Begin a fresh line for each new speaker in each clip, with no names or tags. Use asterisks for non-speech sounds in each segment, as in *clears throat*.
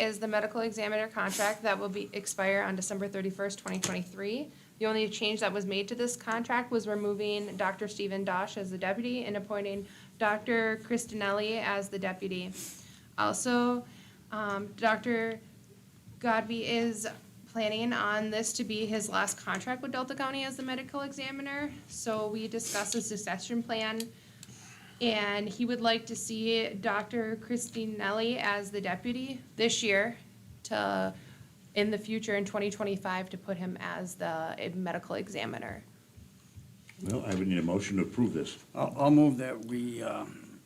is the medical examiner contract that will be, expire on December thirty-first, twenty twenty-three. The only change that was made to this contract was removing Dr. Stephen Dosh as the deputy and appointing Dr. Kristinelli as the deputy. Also, um, Dr. Godby is planning on this to be his last contract with Delta County as the medical examiner. So we discussed a succession plan and he would like to see Dr. Christine Nelly as the deputy this year to, in the future, in 2025, to put him as the eh, medical examiner.
Well, I would need a motion to approve this.
I'll, I'll move that we um,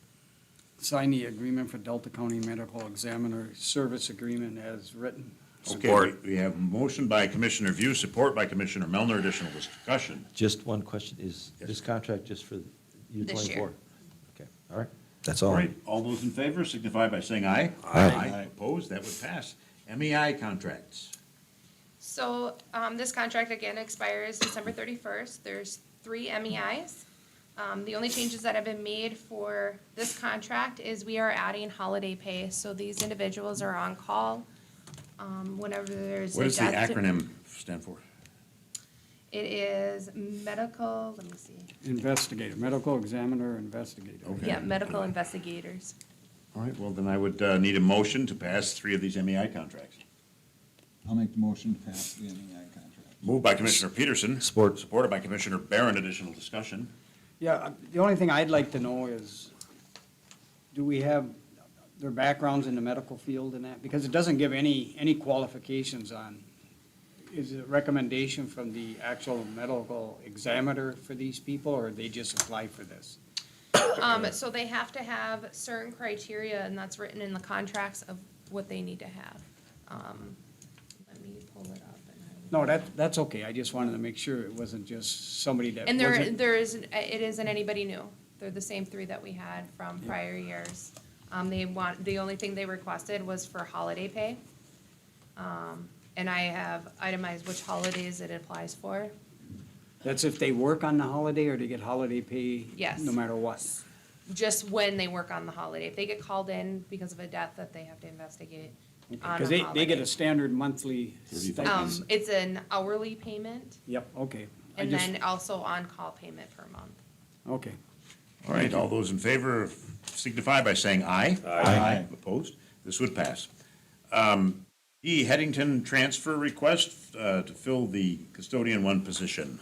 sign the agreement for Delta County Medical Examiner Service Agreement as written.
Okay,
Support.
We we have a motion by Commissioner View, support by Commissioner Melner. Additional discussion.
Just one question, is
Yes.
this contract just for year
This year.
twenty-four? Okay, all right, that's all.
All right, all those in favor signify by saying aye.
Aye.
Opposed, that would pass. MEI contracts.
So um, this contract again expires December 31st. There's three MEIs. Um, The only changes that have been made for this contract is we are adding holiday pay. So these individuals are on call um, whenever there's. a
What does the
death-
acronym stand for?
It is medical, let me see.
Investigator, medical examiner, investigator.
Okay.
Yeah, medical investigators.
All right, well, then I would uh, need a motion to pass three of these MEI contracts.
I'll make the motion to pass the MEI contract.
Moved by Commissioner Peterson.
Support.
Supported by Commissioner Barron. Additional discussion.
Yeah, uh, the only thing I'd like to know is, do we have their backgrounds in the medical field and that? Because it doesn't give any, any qualifications on, is it a recommendation from the actual medical examiner for these people, or they just apply for this?
Um, so they have to have certain criteria, and that's written in the contracts of what they need to have. Um, let me pull it up. and I will-
No, that, that's okay, I just wanted to make sure it wasn't just somebody that
And there,
wasn't.
there isn't, it isn't anybody new. They're the same three that we had from prior years. Um, they want, the only thing they requested was for holiday pay. Um, and I have itemized which holidays it applies for.
That's if they work on the holiday, or they get holiday pay?
Yes.
No matter what?
just when they work on the holiday. If they get called in because of a death that they have to investigate on
Because
a
they, they get
holiday.
a standard monthly
Um,
stipend.
it's an hourly payment
Yep, okay. I
and
just-
then also on-call payment per month.
Okay.
All right, all those in favor signify by saying aye. Aye. Opposed? This would pass. Um, E, Headington transfer request uh, to fill the custodian one position.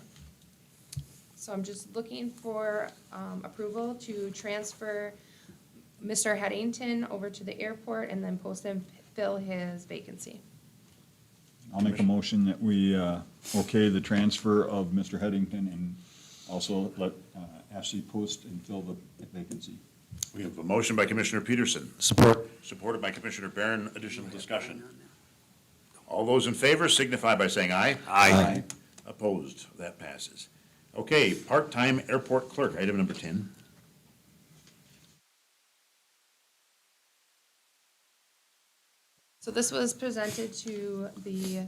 So I'm just looking for, um, approval to transfer Mr. Headington over to the airport and then post and fill his vacancy.
I'll make a motion that we uh, okay the transfer of Mr. Headington and also let uh, Ashley post and fill the vacancy.
We have a motion by Commissioner Peterson,
Support.
supported by Commissioner Barron. Additional discussion. All those in favor signify by saying aye.
Aye.
Opposed? That passes. Okay, part-time airport clerk, item number 10.
So this was presented to the,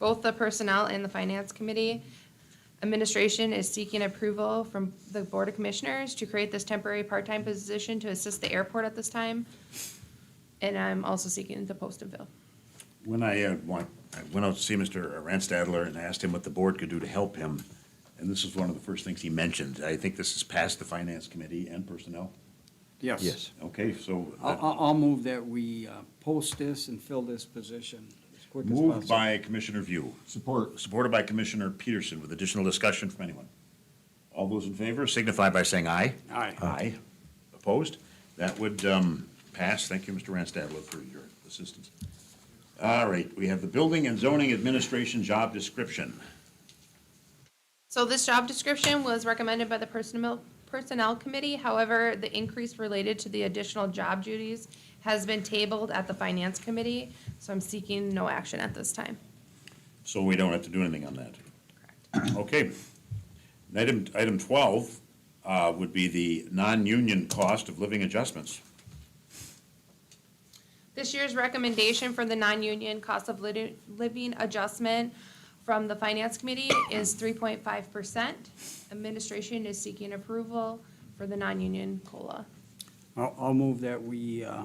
both the Personnel and the Finance Committee. Administration is seeking approval from the Board of Commissioners to create this temporary part-time position to assist the airport at this time. And I'm also seeking the post and bill.
When I, uh, went, I went out to see Mr. Ranstadler and asked him what the board could do to help him, and this is one of the first things he mentioned. I think this is past the finance committee and personnel.
Yes.
Yes.
Okay, so
I'll,
uh,
I'll, I'll move that we uh, post this and fill this position as quick as
uh, moved
possible.
by Commissioner View,
Support.
supported by Commissioner Peterson with additional discussion from anyone. All those in favor signify by saying aye.
Aye.
Aye. Opposed? That would um, pass. Thank you, Mr. Ranstadler, for your assistance. All right, we have the building and zoning administration job description.
So this job description was recommended by the Personnel, Personnel Committee. However, the increase related to the additional job duties has been tabled at the Finance Committee. So I'm seeking no action at this time.
So we don't have to do anything on that? Correct. *clears throat* Okay. And Item, item twelve, uh, would be the non-union cost of living adjustments.
This year's recommendation for the non-union cost of lit- living adjustment from the Finance Committee is three point five percent. Administration is seeking approval for the non-union COLA.
I'll, I'll move that we uh,